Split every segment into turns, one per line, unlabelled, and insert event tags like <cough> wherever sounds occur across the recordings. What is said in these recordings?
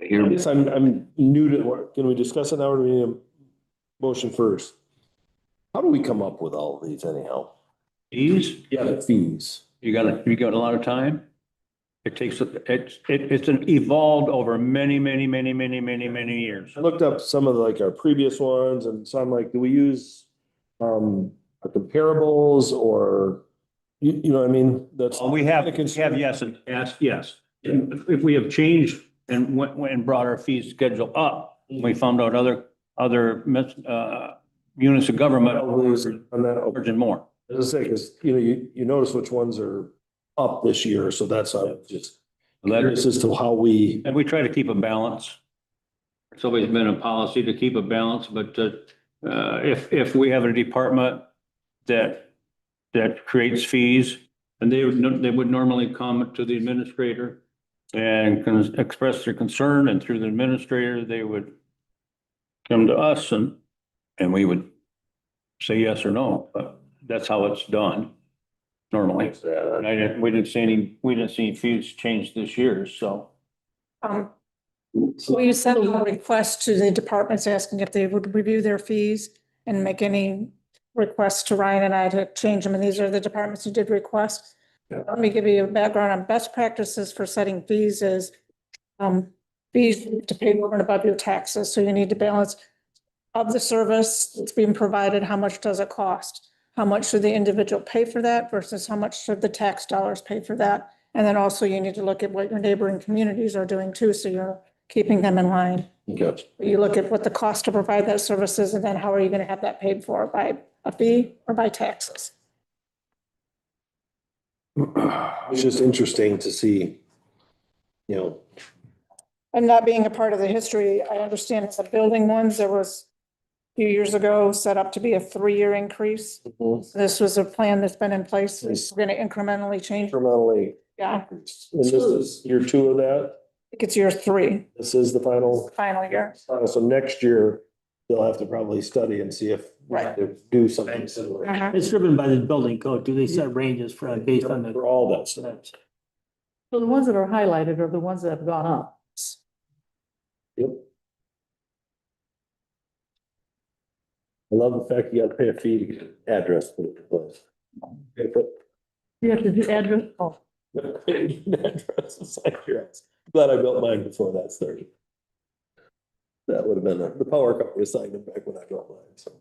I
I
hear,
guess I'm, I'm new to, can we discuss it now or do we need a motion first? How do we come up with all of these anyhow?
Fees,
Yeah, the fees.
you got, you got a lot of time. It takes, it's, it, it's an evolved over many, many, many, many, many, many years.
I looked up some of like our previous ones and so I'm like, do we use um our comparables or you, you know what I mean? That's.
We have,
Kinda
we
concerned.
have yes and yes, yes. If if we have changed and went, went and brought our fee schedule up, we found out other, other, mis- uh, units of government
Probably is On that, oh,
charging more.
as I say, because you know, you, you notice which ones are up this year, so that's uh, just
Letters.
curious as to how we.
And we try to keep a balance. It's always been a policy to keep a balance, but uh, uh, if, if we have a department that, that creates fees, and they, would no- they would normally come to the administrator and can express their concern, and through the administrator, they would come to us and, and we would say yes or no, but that's how it's done normally.
Yeah,
And I didn't, we didn't see any, we didn't see fees change this year, so.
Um, we sent a request to the departments asking if they would review their fees and make any requests to Ryan and I to change them, and these are the departments who did request.
Yeah.
Let me give you a background on best practices for setting fees is, um, fees to pay over and above your taxes, so you need to balance of the service that's being provided, how much does it cost? How much should the individual pay for that versus how much should the tax dollars pay for that? And then also you need to look at what your neighboring communities are doing too, so you're keeping them in line.
Okay.
You look at what the cost to provide that service is, and then how are you gonna have that paid for, by a fee or by taxes?
It's just interesting to see, you know,
And not being a part of the history, I understand the building ones, there was a few years ago, set up to be a three-year increase. This was a plan that's been in place, it's gonna incrementally change,
incrementally.
yeah, I
And this is year two of that.
think it's year three,
This is the final.
final year.
final. So next year, they'll have to probably study and see if we have to do something similar.
Uh-huh.
It's driven by the building code. Do they set ranges for, based on the?
For all that stuff.
So the ones that are highlighted are the ones that have gone up.
Yep. I love the fact you gotta pay a fee to get an address. put in place. Okay, but-
You have to do address, oh,
Address is like your house. Glad I built mine before that started. That would have been, a- the power company assigned it back when I built mine, so.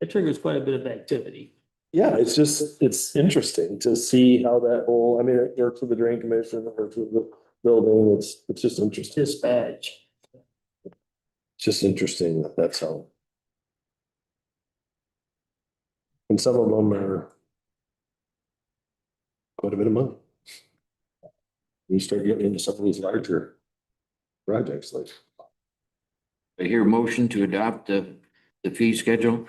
It triggers quite a bit of activity.
Yeah, it's just, it's interesting to see how that whole, I mean, it works with the drain commission, it works with the building, it's, it's just interesting. It's
Dispatch.
just interesting that that's how. And some of them are quite a bit of money. You start getting into some of these larger projects like.
I hear motion to adopt the, the fee schedule.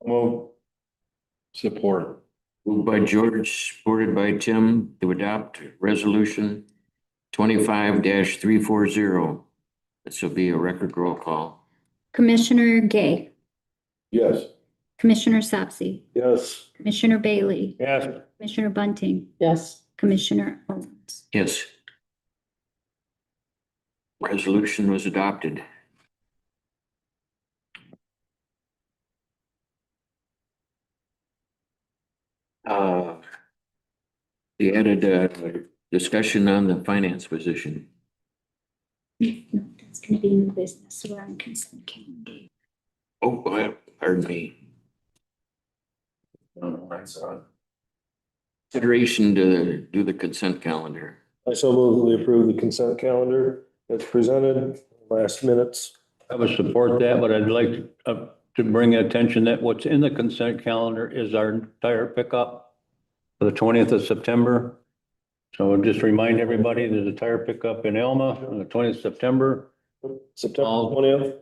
Well.
Support. Moved by George, supported by Tim to adopt resolution twenty-five three four zero. This will be a record roll call.
Commissioner Gay,
Yes.
Commissioner Sapsy,
Yes.
Commissioner Bailey,
Yes.
Commissioner Bunting,
yes,
Commissioner Owens. <laughs>
Yes. Resolution was adopted. Uh, We added a discussion on the finance position.
No, that's gonna be new business, so we're on consent calendar.
Oh, I- pardon me. I don't know, I saw it. Consideration to do the consent calendar.
I so move that we approve the consent calendar that's presented, last minutes.
I would support that, but I'd like to, uh, to bring attention that what's in the consent calendar is our tire pickup for the twentieth of September. So just remind everybody, there's a tire pickup in Elma on the twentieth of September.
September
All-
twentieth.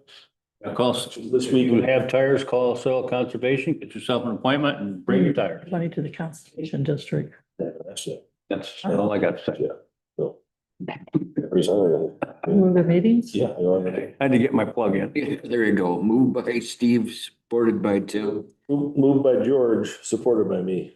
Uh, Call,
This
this
week-
week you have tires, call soil conservation, get yourself an appointment and bring your tires.
money to the conservation district.
Yeah, that's it.
That's all I got to say.
Presented.
Were there meetings?
Yeah. I know, I know.
I had to get my plug in.
There you go. Moved by Steve, supported by Tim.
Moved by George, supported by me.